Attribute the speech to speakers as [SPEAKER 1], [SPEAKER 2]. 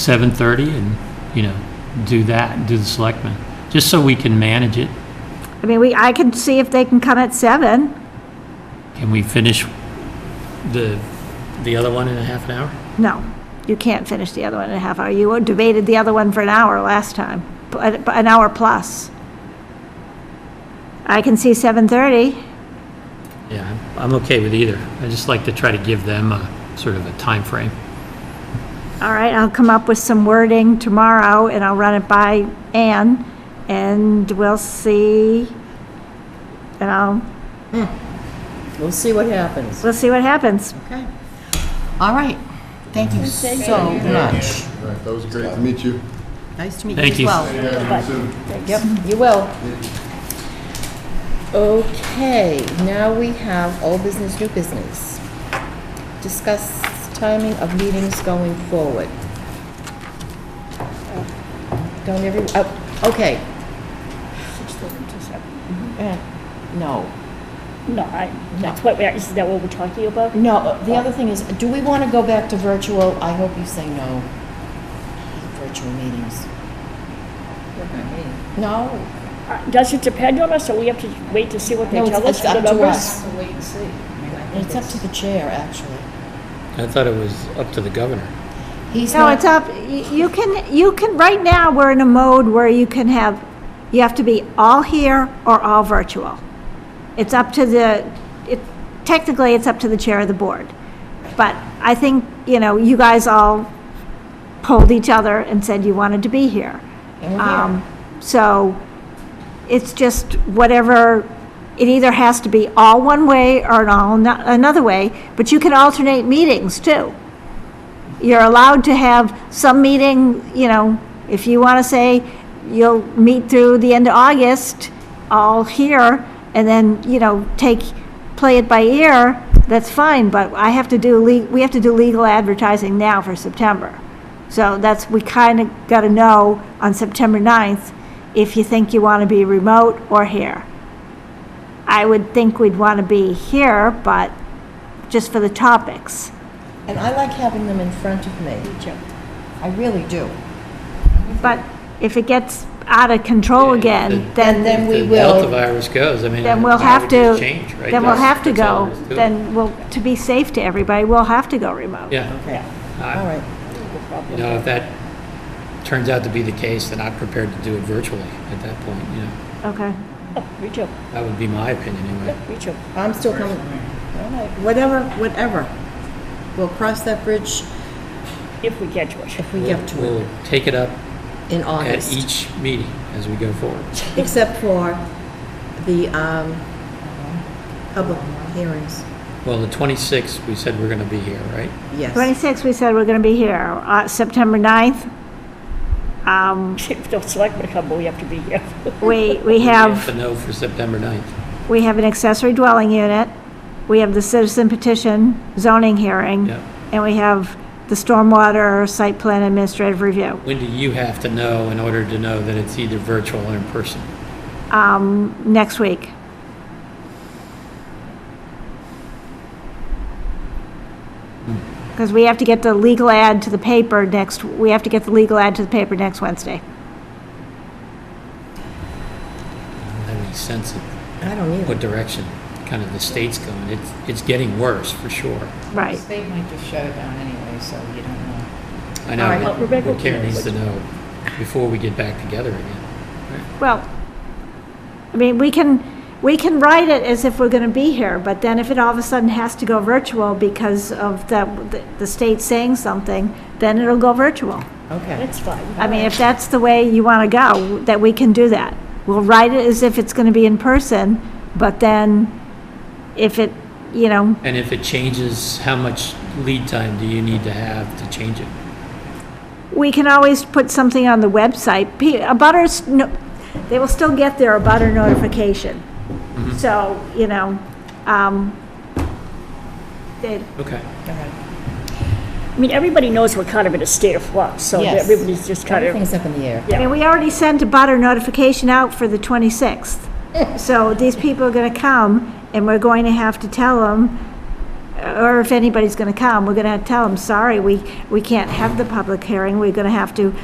[SPEAKER 1] 7:30 and, you know, do that, do the selectmen, just so we can manage it.
[SPEAKER 2] I mean, we, I can see if they can come at seven.
[SPEAKER 1] Can we finish the, the other one in a half an hour?
[SPEAKER 2] No, you can't finish the other one in a half hour. You debated the other one for an hour last time, p- an an hour plus. I can see seven thirty.
[SPEAKER 1] Yeah, I'm- I'm okay with either. I just like to try to give them a sort of a time frame.
[SPEAKER 2] All right, I'll come up with some wording tomorrow and I'll run it by Ann and we'll see. And I'll,
[SPEAKER 3] We'll see what happens.
[SPEAKER 2] we'll see what happens.
[SPEAKER 3] Okay. All right. Thank you so much.
[SPEAKER 4] All right, that was great to meet you.
[SPEAKER 3] Nice to meet
[SPEAKER 1] Thank you.
[SPEAKER 3] you as well.
[SPEAKER 4] Yeah, soon.
[SPEAKER 3] Yep, you will. Okay, now we have old business, new business. Discuss timing of meetings going forward. Don't every, oh, okay. Eh, No,
[SPEAKER 5] No, I, that's what, we are- is that what we're talking about?
[SPEAKER 3] no, the other thing is, do we want to go back to virtual? I hope you say no. Virtual meetings. No,
[SPEAKER 5] Uh, Does it depend on us, or we have to wait to see what they
[SPEAKER 3] No,
[SPEAKER 5] tell
[SPEAKER 3] it's-
[SPEAKER 5] us?
[SPEAKER 3] it's up
[SPEAKER 5] the
[SPEAKER 3] to
[SPEAKER 5] numbers?
[SPEAKER 3] us. It's up to the chair, actually.
[SPEAKER 1] I thought it was up to the governor.
[SPEAKER 3] He's
[SPEAKER 2] No, it's
[SPEAKER 3] not,
[SPEAKER 2] up, y- you can, you can, right now, we're in a mode where you can have, you have to be all here or all virtual. It's up to the, it, technically, it's up to the chair of the board. But I think, you know, you guys all polled each other and said you wanted to be here.
[SPEAKER 3] And we're here.
[SPEAKER 2] Um, So it's just whatever, it either has to be all one way or an all no- another way, but you can alternate meetings too. You're allowed to have some meeting, you know, if you want to say you'll meet through the end of August, all here, and then, you know, take, play it by ear, that's fine, but I have to do, le- we have to do legal advertising now for September. So that's, we kind of got to know on September 9th if you think you want to be remote or here. I would think we'd want to be here, but just for the topics.
[SPEAKER 3] and I like having them in front of me. I really do.
[SPEAKER 2] But if it gets out of control
[SPEAKER 1] Yeah,
[SPEAKER 2] again,
[SPEAKER 1] then-
[SPEAKER 3] And
[SPEAKER 2] then,
[SPEAKER 3] then we
[SPEAKER 1] The Delta
[SPEAKER 3] will,
[SPEAKER 1] virus goes, I mean.
[SPEAKER 2] then we'll
[SPEAKER 1] why
[SPEAKER 2] have
[SPEAKER 1] would
[SPEAKER 2] to,
[SPEAKER 1] you Change, right?
[SPEAKER 2] then we'll
[SPEAKER 1] That's-
[SPEAKER 2] have to
[SPEAKER 1] that's all
[SPEAKER 2] go,
[SPEAKER 1] there is to it.
[SPEAKER 2] then we'll, to be safe to everybody, we'll have to go remote.
[SPEAKER 1] Yeah,
[SPEAKER 3] okay,
[SPEAKER 1] I-
[SPEAKER 3] all right.
[SPEAKER 1] you know, if that turns out to be the case, then I'm prepared to do it virtually at that point, you know.
[SPEAKER 2] Okay.
[SPEAKER 5] Oh, Me too,
[SPEAKER 1] That would be my opinion anyway.
[SPEAKER 5] me too.
[SPEAKER 3] I'm still coming. All right, whatever, whatever. We'll cross that bridge
[SPEAKER 5] If we get to it.
[SPEAKER 3] if we get to it
[SPEAKER 1] We'll take it up
[SPEAKER 3] in
[SPEAKER 1] at
[SPEAKER 3] August,
[SPEAKER 1] each meeting as we go forward.
[SPEAKER 3] except for the um, public hearings.
[SPEAKER 1] Well, the 26th, we said we're going to be here, right?
[SPEAKER 3] Yes.
[SPEAKER 2] 26, we said we're going to be here, uh, September 9th. Um,
[SPEAKER 5] If the selectmen come, we have to be here.
[SPEAKER 2] we, we
[SPEAKER 1] We
[SPEAKER 2] have,
[SPEAKER 1] To know for September 9th.
[SPEAKER 2] we have an accessory dwelling unit, we have the citizen petition zoning hearing,
[SPEAKER 1] Yeah.
[SPEAKER 2] and we have the stormwater site plan administrative review.
[SPEAKER 1] When do you have to know in order to know that it's either virtual or in person?
[SPEAKER 2] um, next week. Because we have to get the legal ad to the paper next, we have to get the legal ad to the paper next Wednesday.
[SPEAKER 1] I don't have any sense of
[SPEAKER 3] I don't either.
[SPEAKER 1] what direction kind of the state's going. It's, it's getting worse, for sure.
[SPEAKER 2] Right.
[SPEAKER 6] They might just shut it down anyway, so you don't know.
[SPEAKER 1] I
[SPEAKER 3] All right,
[SPEAKER 1] know, but-
[SPEAKER 5] Rebecca-
[SPEAKER 1] but Karen needs to know before we get back together again.
[SPEAKER 2] Well, I mean, we can, we can write it as if we're going to be here, but then if it all of a sudden has to go virtual because of the, the state saying something, then it'll go virtual.
[SPEAKER 3] Okay.
[SPEAKER 5] That's fine.
[SPEAKER 2] I mean, if that's the way you want to go, that we can do that. We'll write it as if it's going to be in person, but then if it, you know,
[SPEAKER 1] And if it changes, how much lead time do you need to have to change it?
[SPEAKER 2] we can always put something on the website. P- Abutters, no- they will still get their abutter notification. So, you know, um, they,
[SPEAKER 1] Okay.
[SPEAKER 5] I mean, everybody knows we're kind of in a state of flux, so
[SPEAKER 3] Yes.
[SPEAKER 5] everybody's just kind of,
[SPEAKER 3] Everything's up in the air.
[SPEAKER 2] I mean, we already sent a butter notification out for the 26th. So these people are going to come, and we're going to have to tell them, or if anybody's going to come, we're going to tell them, sorry, we, we can't have the public hearing, we're going to have to